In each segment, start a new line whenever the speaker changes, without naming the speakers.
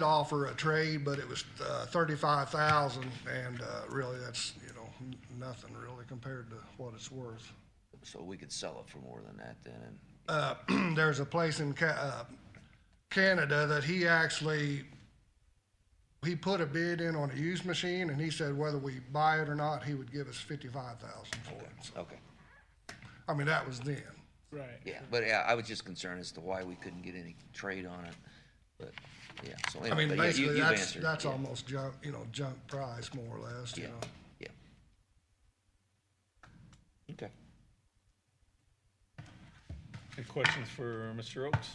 to offer a trade, but it was uh, thirty-five thousand, and uh, really, that's, you know, n- nothing really compared to what it's worth.
So we could sell it for more than that then, and
There's a place in Ca- uh, Canada that he actually, he put a bid in on a used machine, and he said whether we buy it or not, he would give us fifty-five thousand for it. So,
okay,
I mean, that was then.
Right.
yeah, but yeah, I was just concerned as to why we couldn't get any trade on it, but yeah, so
I
anyway,
mean,
but yeah, you,
basically,
you've
that's,
answered.
that's
yeah,
almost junk, you know, junk price, more or less, you
Yeah,
know.
yeah. Okay.
Any questions for Mr. Oaks?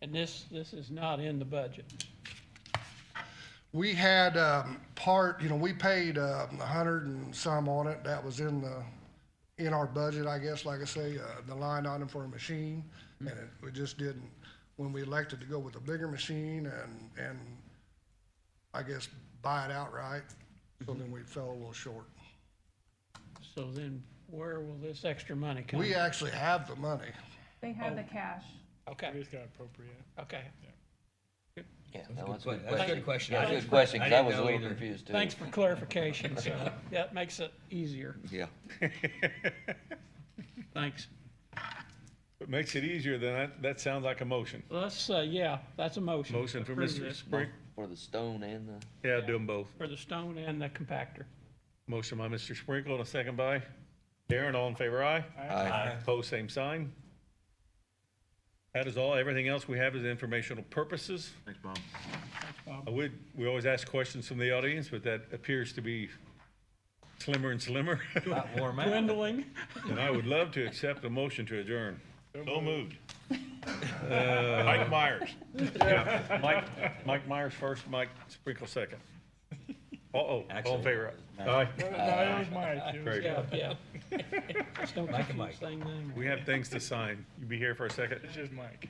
And this, this is not in the budget.
We had um, part, you know, we paid um, a hundred and some on it. That was in the, in our budget, I guess, like I say, uh, the line item for a machine. And it, we just didn't, when we elected to go with a bigger machine and, and I guess buy it outright, so then we fell a little short.
So then where will this extra money come?
We actually have the money.
They have the cash.
Okay,
He's got appropriate.
okay.
Yeah, no, that's a good
That's a
question.
good question.
That's a
I-
good question, because I
didn't
was a
know
little
either.
confused too.
Thanks for clarification, so that makes it easier.
Yeah,
Thanks.
It makes it easier than that, that sounds like a motion.
Let's, uh, yeah, that's a motion.
Motion for
Approve
Mr.
this.
Spring.
for the stone and the,
Yeah, do them both.
For the stone and the compactor.
Motion by Mr. Sprinkle and a second by Darren. All in favor, aye?
Aye.
Opposed, same sign. That is all. Everything else we have is informational purposes. Thanks, Bob. I would, we always ask questions from the audience, but that appears to be slimmer and slimmer.
warm up.
Dwindling.
And I would love to accept a motion to adjourn.
So moved. Uh, Mike Myers.
Mike, Mike Myers first, Mike Sprinkle second. Uh-oh, all in
Actually,
favor? Aye. Very
Yeah,
good.
yeah. Just don't
Mike and
confuse
Mike.
thing thing.
We have things to sign. You be here for a second?
It's just Mike.